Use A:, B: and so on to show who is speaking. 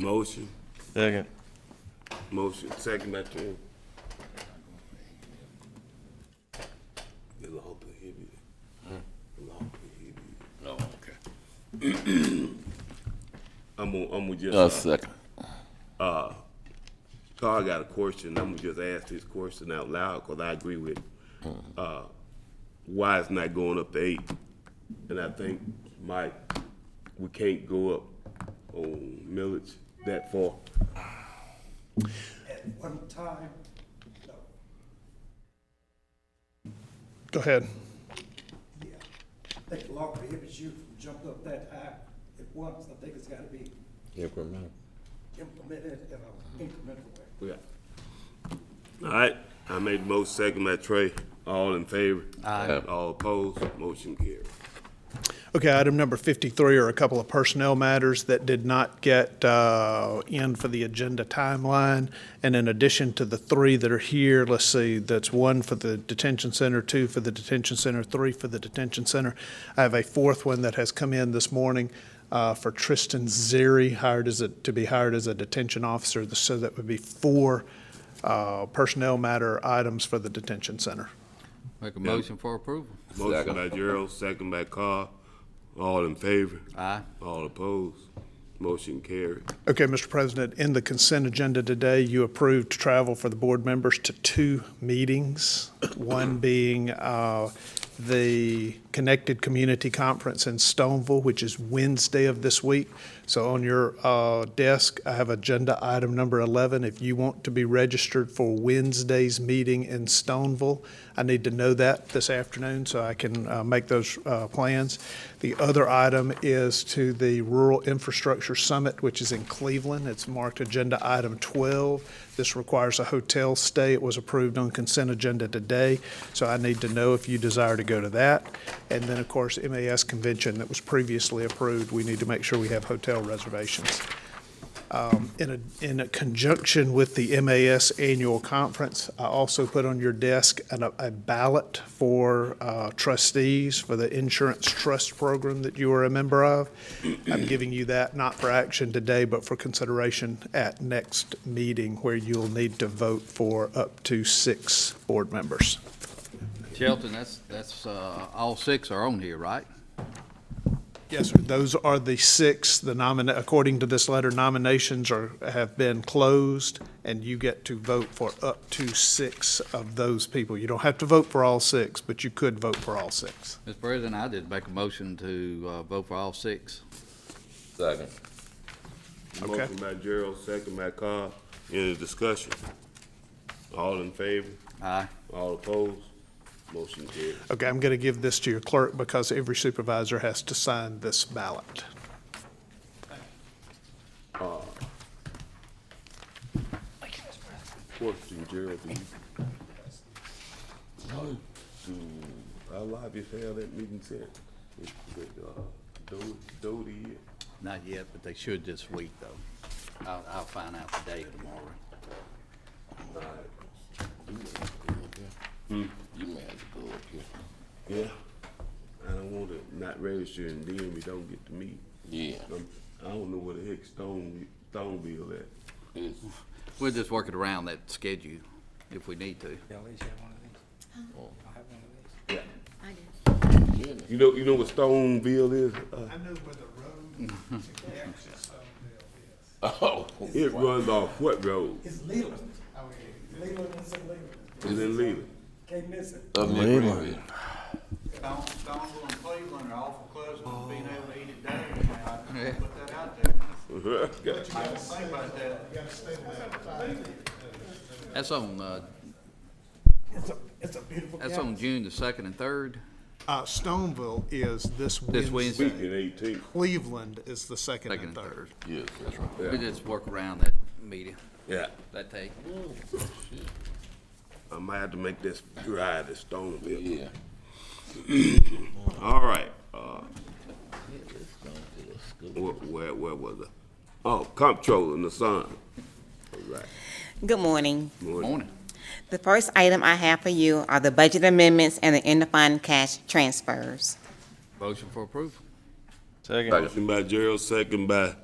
A: Motion,
B: Second.
A: motion, second by Trent. The law prohibited. The law prohibited.
C: No, okay.
A: I'm gonna, I'm gonna
C: A
A: just, uh,
C: second.
A: Carl got a question, I'm gonna just ask this question out loud, cause I agree with, uh, why it's not going up to eight? And I think, Mike, we can't go up on millage that far.
D: at one time, no,
E: Go ahead.
D: yeah. I think the law prohibits you from jumping up that high at once. I think it's gotta be implemented in an incremental way.
A: Yeah. All right, I made the most second by Trey. All in favor? Aye. All opposed? Motion carried.
E: Okay, item number 53 are a couple of personnel matters that did not get uh, in for the agenda timeline. And in addition to the three that are here, let's see, that's one for the detention center, two for the detention center, three for the detention center. I have a fourth one that has come in this morning uh, for Tristan Zeri, hired as a, to be hired as a detention officer. So that would be four uh, personnel matter items for the detention center.
F: Make a motion for approval.
A: Motion
C: Second.
A: by Gerald, second by Carl. All in favor?
F: Aye.
A: All opposed? Motion carried.
E: Okay, Mr. President, in the consent agenda today, you approved travel for the board members to two meetings, one being uh, the Connected Community Conference in Stoneville, which is Wednesday of this week. So on your uh, desk, I have agenda item number 11. If you want to be registered for Wednesday's meeting in Stoneville, I need to know that this afternoon so I can uh, make those uh, plans. The other item is to the Rural Infrastructure Summit, which is in Cleveland. It's marked Agenda Item 12. This requires a hotel stay. It was approved on consent agenda today, so I need to know if you desire to go to that. And then, of course, MAS Convention that was previously approved, we need to make sure we have hotel reservations in a, in a conjunction with the MAS Annual Conference, I also put on your desk an- a ballot for uh, trustees for the insurance trust program that you are a member of. I'm giving you that not for action today, but for consideration at next meeting where you'll need to vote for up to six board members.
F: Shelton, that's, that's, uh, all six are on here, right?
E: Yes, sir. Those are the six, the nomina, according to this letter, nominations are, have been closed, and you get to vote for up to six of those people. You don't have to vote for all six, but you could vote for all six.
F: Mr. President, I did make a motion to, uh, vote for all six.
C: Second.
E: Okay.
A: Motion by Gerald, second by Carl. Any discussion? All in favor?
F: Aye.
A: All opposed? Motion carried.
E: Okay, I'm going to give this to your clerk because every supervisor has to sign this ballot.
A: Question, Gerald, do you? Do, I Hmm, live if hell that meeting said, with, with, uh, Doty, Doty here?
F: Not yet, but they should this week, though. I'll, I'll find out the date tomorrow.
C: You may have to go up here.
A: Yeah. I don't want to not register and then we don't get to meet.
C: Yeah.
A: I'm, I don't know where the heck Stone, Stoneville at.
C: It's
F: We'll just work it around that schedule if we need to.
G: I do.
A: You know, you know what Stoneville is? Uh,
E: I know where the road to Jackson Stoneville
C: Oh.
A: it runs off what road?
D: It's Leland. Leland is a Leland.
A: It's in Leland.
D: Can't miss it.
C: Up in Greenville.
H: Don, Donville and Cleveland are awful close to being able to eat it down, now, I
F: Yeah.
H: can put that out there,
A: Got you.
H: I don't think about that.
F: That's on, uh,
D: It's a, it's a beautiful
F: that's
D: campus.
F: on June the second and third.
E: Uh, Stoneville is this
F: This
E: Wednesday.
F: Wednesday,
A: Weekend eighteen.
E: Cleveland is the second
F: second
E: and
F: and
E: third.
F: third.
C: Yes, that's right.
F: We just work around that meeting,
A: Yeah.
F: that take.
A: I might have to make this ride to Stoneville.
C: Yeah.
A: All right. Uh, where, where, where was I? Oh, comptroller in the sun. All right.
I: Good morning.
F: Morning.
I: The first item I have for you are the budget amendments and the end-of-fund cash transfers.
F: Motion for approval.
B: Second.
A: Motion by Gerald, second by